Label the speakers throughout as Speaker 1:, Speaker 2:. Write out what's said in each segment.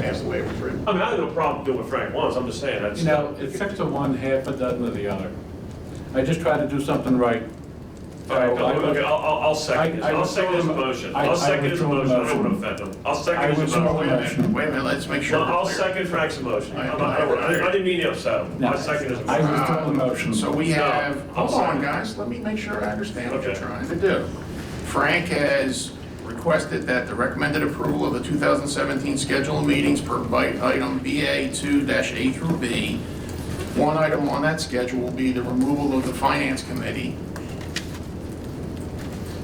Speaker 1: passed away with Frank.
Speaker 2: I mean, I have no problem doing what Frank wants, I'm just saying, that's.
Speaker 3: You know, it's six to one, half a dozen of the other. I just try to do something right.
Speaker 2: All right, no, okay, I'll, I'll, I'll
Speaker 3: I-
Speaker 2: second this,
Speaker 3: I
Speaker 2: I'll
Speaker 3: withdraw
Speaker 2: second his
Speaker 3: the-
Speaker 2: motion,
Speaker 3: I- I
Speaker 2: I'll second his
Speaker 3: withdraw the
Speaker 2: motion, I don't want
Speaker 3: motion.
Speaker 2: to offend him, I'll
Speaker 3: I
Speaker 2: second his
Speaker 3: withdraw
Speaker 1: Wait
Speaker 3: the
Speaker 1: a
Speaker 2: motion.
Speaker 1: minute, wait a minute, let's make sure.
Speaker 2: Well, I'll
Speaker 1: we're clear.
Speaker 2: second Frank's motion,
Speaker 1: I-
Speaker 2: I'm not- I I didn't mean to upset him,
Speaker 3: No.
Speaker 2: I second his
Speaker 3: I
Speaker 2: motion.
Speaker 3: was told the motion.
Speaker 1: Uh, So we
Speaker 2: No,
Speaker 1: have,
Speaker 2: I'll
Speaker 1: hold on,
Speaker 2: second.
Speaker 1: guys, let me make sure I understand what you're
Speaker 2: Okay.
Speaker 1: trying to do. Frank has requested that the recommended approval of the 2017 schedule of meetings per bite item BA 2-A through B. One item on that schedule will be the removal of the finance committee.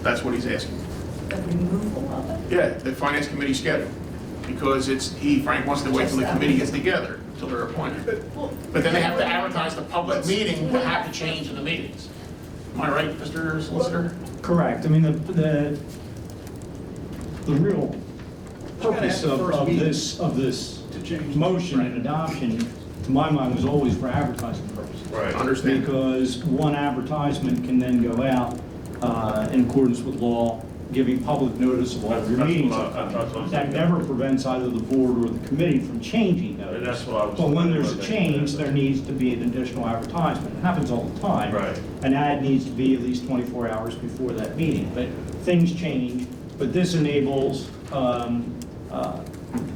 Speaker 1: That's what he's asking.
Speaker 4: The removal of it?
Speaker 1: Yeah, the finance committee schedule, because it's, he, Frank wants to wait till the committee gets together, till they're appointed. But then they have to advertise the public meeting to have to change in the meetings. Am I right, Mr. Solicitor?
Speaker 5: Correct, I mean, the, the, the real purpose of, of this, of this motion and adoption, to my mind, was always for advertising purposes.
Speaker 2: Right,
Speaker 1: Understand?
Speaker 5: Because one advertisement can then go out, uh, in accordance with law, giving public notice of all of your
Speaker 2: That's- that's
Speaker 5: meetings.
Speaker 2: what I- that's what I'm
Speaker 5: That
Speaker 2: saying.
Speaker 5: never prevents either the board or the committee from changing those.
Speaker 2: And that's what I was-
Speaker 5: But when there's a change, there needs to be an additional advertisement. It happens all the time.
Speaker 2: Right.
Speaker 5: An ad needs to be at least 24 hours before that meeting, but things change. But this enables um, uh,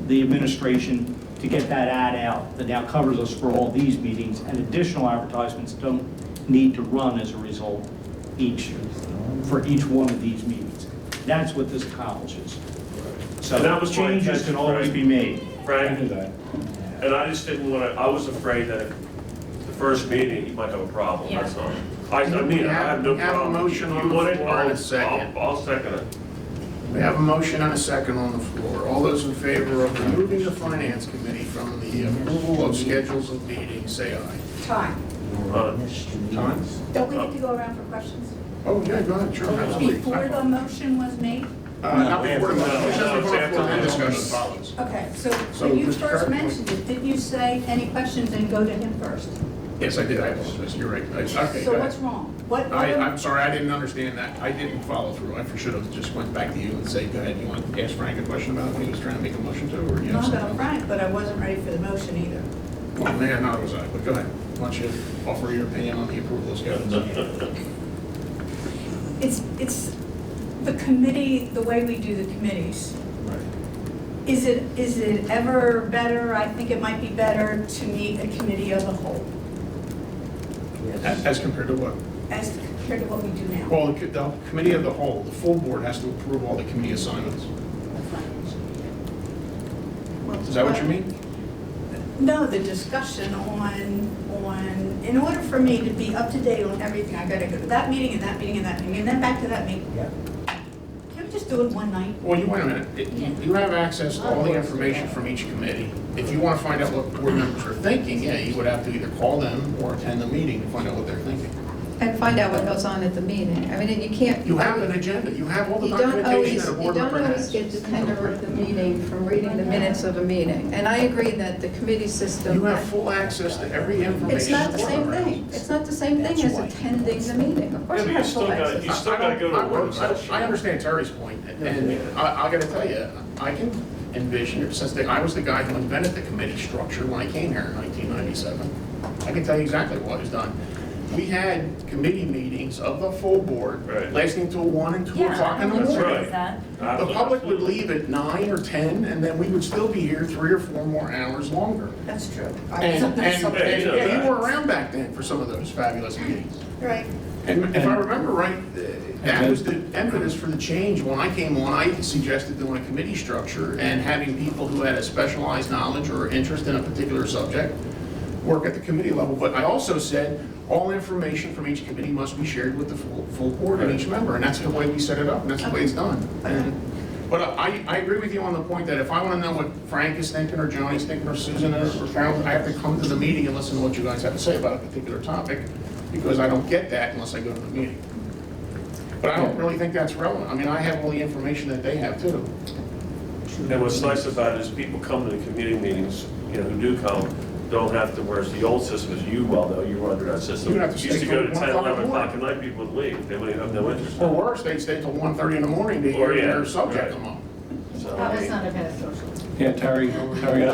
Speaker 5: the administration to get that ad out that now covers us for all these meetings, and additional advertisements don't need to run as a result each, for each one of these meetings. That's what this accomplishes.
Speaker 2: And that
Speaker 5: So
Speaker 2: was my
Speaker 5: changes can
Speaker 2: intention,
Speaker 5: always
Speaker 2: right?
Speaker 5: be made.
Speaker 2: Frank,
Speaker 3: that.
Speaker 2: and I just didn't want to, I was afraid that the first meeting, you might have a problem,
Speaker 4: Yeah.
Speaker 2: that's all. I, I mean, I have no problem.
Speaker 1: We have a motion on
Speaker 2: You
Speaker 1: the
Speaker 2: want it?
Speaker 1: floor in a
Speaker 2: I'll- I'll-
Speaker 1: second.
Speaker 2: I'll second it.
Speaker 1: We have a motion and a second on the floor. All those in favor of removing the finance committee from the approval of schedules of meetings, say aye.
Speaker 4: Time.
Speaker 2: Uh,
Speaker 1: Time?
Speaker 4: Don't we get to go around for questions?
Speaker 1: Oh, yeah, go ahead, sure, Oh. absolutely.
Speaker 4: Before the motion was made?
Speaker 1: Uh, Not before the
Speaker 2: No,
Speaker 1: motion,
Speaker 2: it's
Speaker 1: just before the
Speaker 2: after
Speaker 1: floor,
Speaker 2: the
Speaker 1: then discussion
Speaker 2: motion.
Speaker 1: follows.
Speaker 4: Okay, so
Speaker 1: So,
Speaker 4: when you
Speaker 1: Mr.
Speaker 4: first
Speaker 1: Kirk?
Speaker 4: mentioned it, didn't you say any questions and go to him first?
Speaker 1: Yes, I did, I apologize, you're right. I- Okay, go
Speaker 4: So what's
Speaker 1: ahead.
Speaker 4: wrong? What,
Speaker 1: I, I'm
Speaker 4: other-
Speaker 1: sorry, I didn't understand that, I didn't follow through, I should have just went back to you and said, go ahead, you want to ask Frank a question about what he was trying to make a motion to, or you have
Speaker 4: not about
Speaker 1: something?
Speaker 4: Frank, but I wasn't ready for the motion either.
Speaker 1: Well, man, not was I, but go ahead, why don't you offer your opinion on the approval of schedules?
Speaker 4: It's, it's the committee, the way we do the committees.
Speaker 1: Right.
Speaker 4: Is it, is it ever better, I think it might be better to meet a committee of the whole
Speaker 1: As as compared to what?
Speaker 4: as compared to what we do now.
Speaker 1: Well, the co- the committee of the whole, the full board has to approve all the committee assignments. Is that what you mean?
Speaker 4: No, the discussion on, on, in order for me to be up to date on everything, I gotta go to that meeting and that meeting and that meeting, and then back to that meeting. Can we just do it one night?
Speaker 1: Well, you, wait a minute, It- you you have access to all the information from each committee. If you want to find out what board members are thinking, yeah, you would have to either call them or attend the meeting to find out what they're thinking.
Speaker 6: And find out what goes on at the meeting. I mean, and you can't.
Speaker 1: You have an agenda, you have all the
Speaker 6: You don't
Speaker 1: documentation
Speaker 6: always,
Speaker 1: that a
Speaker 6: you
Speaker 1: board
Speaker 6: don't
Speaker 1: member has.
Speaker 6: always get the tenor of the meeting from reading the minutes of a meeting. And I agree that the committee system.
Speaker 1: You have full access to every information.
Speaker 6: It's not the
Speaker 1: a board
Speaker 6: same
Speaker 1: member has.
Speaker 6: thing. It's not the same thing as attending the meeting. Of
Speaker 2: Yeah, but
Speaker 6: course you
Speaker 2: you
Speaker 6: have
Speaker 2: still
Speaker 6: full
Speaker 2: gotta- you
Speaker 6: access.
Speaker 2: still gotta go to a work
Speaker 1: I- I-
Speaker 2: session.
Speaker 1: I understand Terry's point, and I, I gotta tell you, I can envision, since the- I was the guy who invented the committee structure when I came here in 1997, I can tell you exactly what was done. We had committee meetings of the full board
Speaker 2: Right.
Speaker 1: lasting till 1 and 2 o'clock in the
Speaker 2: That's
Speaker 1: morning.
Speaker 2: right.
Speaker 1: The public would leave at 9 or 10, and then we would still be here three or four more hours longer.
Speaker 4: That's true. I-
Speaker 1: And, and,
Speaker 2: something-
Speaker 1: and
Speaker 2: Yeah, you know
Speaker 1: yeah, you were
Speaker 2: that.
Speaker 1: around back then for some of those fabulous meetings.
Speaker 4: Right.
Speaker 1: And if I remember right, that was the impetus for the change. When I came on, I suggested doing a committee structure and having people who had a specialized knowledge or interest in a particular subject work at the committee level. But I also said, all information from each committee must be shared with the full, full board and each member. And that's the way we set it up, and that's the way it's done. And- But I, I agree with you on the point that if I want to know what Frank is thinking, or Johnny's thinking, or Susan, or or Carol, I have to come to the meeting and listen to what you guys have to say about a particular topic, because I don't get that unless I go to the meeting. But I don't really think that's relevant. I mean, I have all the information that they have too.
Speaker 2: And what's nice about it is people come to the community meetings, you know, who do come, don't have to, whereas the old system, as you well know, you were under that system.
Speaker 1: You have to stay
Speaker 2: Used to go to
Speaker 1: till
Speaker 2: 10,
Speaker 1: 1
Speaker 2: 11 o'clock at night, people would leave, they would have no interest.
Speaker 1: Or worse, they stay till 1:30 in the morning to
Speaker 2: Or,
Speaker 1: hear
Speaker 2: yeah,
Speaker 1: their subject
Speaker 2: right.
Speaker 1: come up.
Speaker 2: So, I
Speaker 4: That was
Speaker 2: mean-
Speaker 4: not a bad social.
Speaker 3: Yeah, Terry, Terry, I